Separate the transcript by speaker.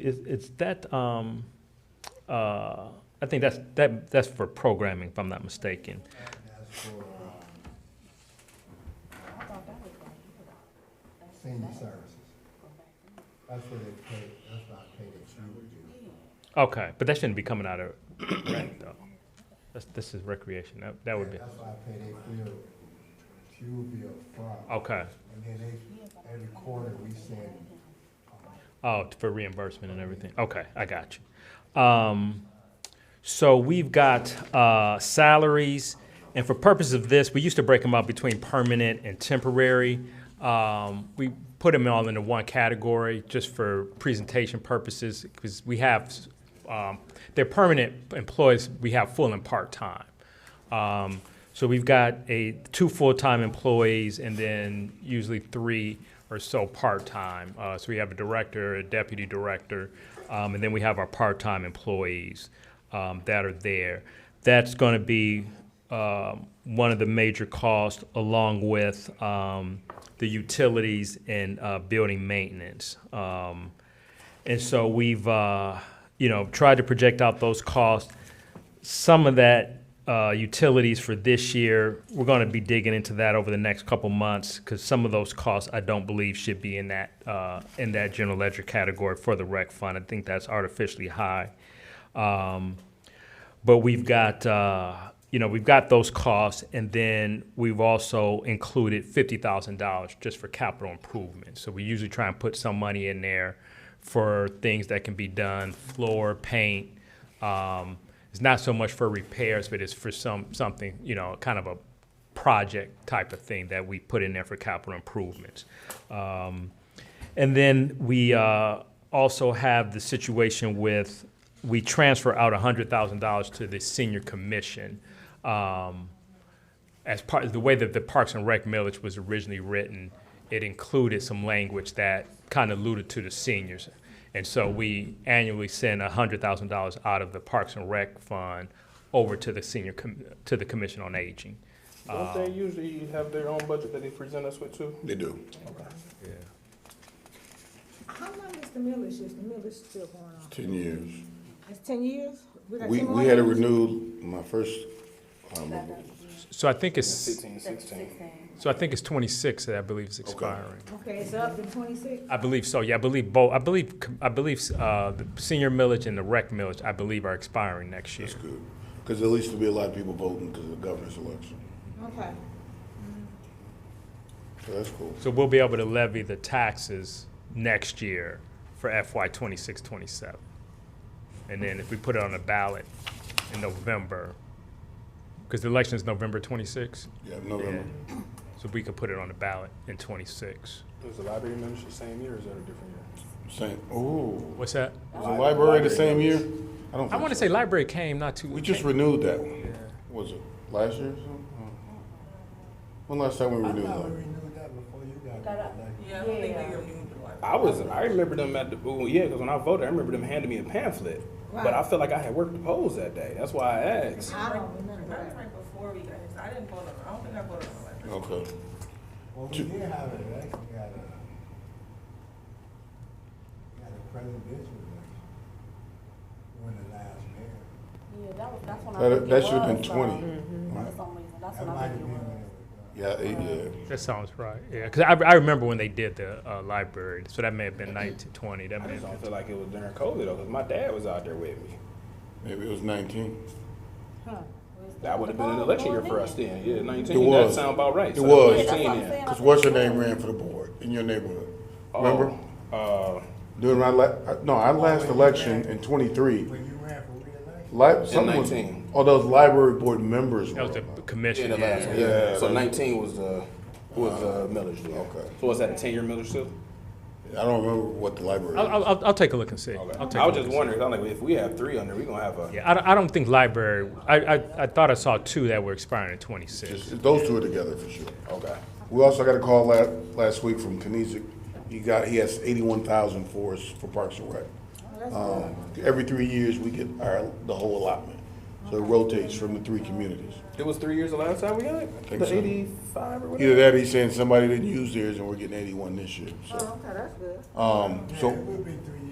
Speaker 1: Is, is that, um, uh, I think that's, that, that's for programming, if I'm not mistaken.
Speaker 2: Um,
Speaker 3: senior services. That's where they pay, that's why I pay that you would do.
Speaker 1: Okay, but that shouldn't be coming out of rec, though. That's, this is recreation, that, that would be,
Speaker 3: That's why I pay their bill, fuel bill from.
Speaker 1: okay.
Speaker 3: And then they, every quarter we send,
Speaker 1: Oh, t- for reimbursement and everything. Okay, I got you. Um, so we've got uh, salaries, and for purpose of this, we used to break them up between permanent and temporary. Um, we put them all into one category just for presentation purposes because we have um, they're permanent employees. We have full and part time. Um, so we've got a, two full-time employees and then usually three or so part-time. Uh, so we have a director, a deputy director, um, and then we have our part-time employees, um, that are there. That's gonna be, um, one of the major costs along with, um, the utilities and, uh, building maintenance. Um, and so we've, uh, you know, tried to project out those costs. Some of that uh, utilities for this year, we're going to be digging into that over the next couple months because some of those costs I don't believe should be in that uh, in that general ledger category for the rec fund. I think that's artificially high. Um, but we've got, uh, you know, we've got those costs, and then we've also included fifty thousand dollars just for capital improvements. So we usually try and put some money in there for things that can be done, floor, paint. Um, it's not so much for repairs, but it's for some, something, you know, kind of a project type of thing that we put in there for capital improvements. Um, and then we uh, also have the situation with, we transfer out $100,000 to the senior commission. Um, As part, of the way that the Parks and Rec millage was originally written, it included some language that kind of alluded to the seniors. And so we annually send $100,000 out of the Parks and Rec fund over to the senior, com- to the Commission on Aging.
Speaker 4: Don't they usually have their own budget that they present us with too?
Speaker 5: They do.
Speaker 6: How long is the millage, is the millage still going on?
Speaker 5: Ten years.
Speaker 6: It's ten years? got
Speaker 5: We,
Speaker 6: 10 more
Speaker 5: we had it
Speaker 6: years?
Speaker 5: renewed my first, um,
Speaker 1: So I think it's,
Speaker 4: Fifteen, sixteen.
Speaker 1: so I think it's 26 that I believe is expiring.
Speaker 6: Okay, it's up to twenty-six?
Speaker 1: I believe so, yeah, I believe both, I believe, I believe, uh, the senior millage and the rec millage, I believe are expiring next year.
Speaker 5: it's good. Cause at least there'll be a lot of people voting because of the governor's election.
Speaker 6: Okay.
Speaker 5: So that's cool.
Speaker 1: So we'll be able to levy the taxes next year for FY 26-27. And then if we put it on the ballot in November, because the election is November twenty-six,
Speaker 5: Yeah, November.
Speaker 1: so we could put it on the ballot in twenty-six.
Speaker 4: Is the library membership the same year or is that a different year?
Speaker 5: Same, ooh.
Speaker 1: What's that?
Speaker 5: Was the library the same year? I don't
Speaker 1: I
Speaker 5: think
Speaker 1: wanna
Speaker 5: so.
Speaker 1: say library came not too.
Speaker 5: We just renewed that one. Was it last year or something? When last time we
Speaker 3: I
Speaker 5: renewed
Speaker 3: thought we
Speaker 5: that?
Speaker 3: renewed that before you got elected.
Speaker 7: Yeah, I don't think they
Speaker 6: Yeah.
Speaker 7: ever do the library.
Speaker 4: I was, I remember them at the, oh, yeah, because when I voted, I remember them handing me a pamphlet. But I
Speaker 6: Right.
Speaker 4: felt like I had worked the polls that day. That's why I asked.
Speaker 6: I don't remember
Speaker 7: I was
Speaker 6: that.
Speaker 7: right before we got here, so I didn't vote on, I don't think I voted on the library.
Speaker 5: Okay.
Speaker 3: Well, we did have an election, we had a, we had a presidential election. When the last mayor.
Speaker 2: Yeah, that was, that's when I
Speaker 5: That,
Speaker 2: think
Speaker 5: that
Speaker 2: it
Speaker 5: should've been
Speaker 2: was,
Speaker 5: twenty.
Speaker 2: though. For
Speaker 5: right?
Speaker 2: some reason, that's
Speaker 3: That
Speaker 2: when
Speaker 3: might
Speaker 2: I
Speaker 3: have
Speaker 2: think it
Speaker 3: been
Speaker 2: was.
Speaker 3: when it was done.
Speaker 5: Yeah, eight, yeah.
Speaker 1: That sounds right, yeah, because I, I remember when they did the, uh, library, so that may have been nineteen twenty, that
Speaker 4: I
Speaker 1: may
Speaker 4: just
Speaker 1: have been.
Speaker 4: don't feel like it was during COVID though, because my dad was out there with me.
Speaker 5: Maybe it was nineteen.
Speaker 6: Huh.
Speaker 4: That would have been an election year for us then, yeah,
Speaker 5: It
Speaker 4: nineteen, that
Speaker 5: was.
Speaker 4: sound about right.
Speaker 5: It
Speaker 4: So that
Speaker 5: was.
Speaker 2: Yeah, that's what
Speaker 4: 19
Speaker 2: I'm
Speaker 4: then.
Speaker 2: saying. I
Speaker 5: Cause
Speaker 2: think
Speaker 5: what's
Speaker 2: it
Speaker 5: your
Speaker 2: was.
Speaker 5: name ran for the board in your neighborhood?
Speaker 4: Oh,
Speaker 5: Remember?
Speaker 4: Uh, Oh,
Speaker 5: During my la, uh, no, our last election in twenty-three,
Speaker 3: When you ran for reelection,
Speaker 5: li- someone was,
Speaker 4: 19.
Speaker 5: oh, those library board members were.
Speaker 1: That was the
Speaker 5: up.
Speaker 4: yeah,
Speaker 1: commission,
Speaker 4: the last
Speaker 1: yeah.
Speaker 4: one,
Speaker 5: Yeah.
Speaker 4: yeah. So nineteen was, uh, was, uh, millage deal.
Speaker 5: Okay.
Speaker 4: So was that a ten-year millage too?
Speaker 5: I don't remember what the library.
Speaker 1: I'll, I'll- I'll, I'll take a look and see.
Speaker 4: Okay.
Speaker 1: I'll take
Speaker 4: I
Speaker 1: a look and
Speaker 4: was just
Speaker 1: see.
Speaker 4: wondering, I'm like, if we have three under, we gonna have a,
Speaker 1: Yeah, I, don't- I don't think library, I, I, I thought I saw two that were expiring in twenty-six.
Speaker 5: Just- Those two are together for sure.
Speaker 4: okay.
Speaker 5: We also got a call la- last week from Kinesic. He got, he has eighty-one thousand for us for Parks and Rec. Um, every three years, we get our, the whole allotment. So it rotates from the three communities.
Speaker 4: It was three years the last time we got it?
Speaker 5: think
Speaker 4: The
Speaker 5: so.
Speaker 4: eighty-five or
Speaker 5: Either
Speaker 4: whatever?
Speaker 5: that, or he's saying somebody didn't use theirs and we're getting eighty-one this year,
Speaker 6: Oh,
Speaker 5: so.
Speaker 6: okay, that's good.
Speaker 5: Um,
Speaker 3: Yeah,
Speaker 5: so
Speaker 3: it would be three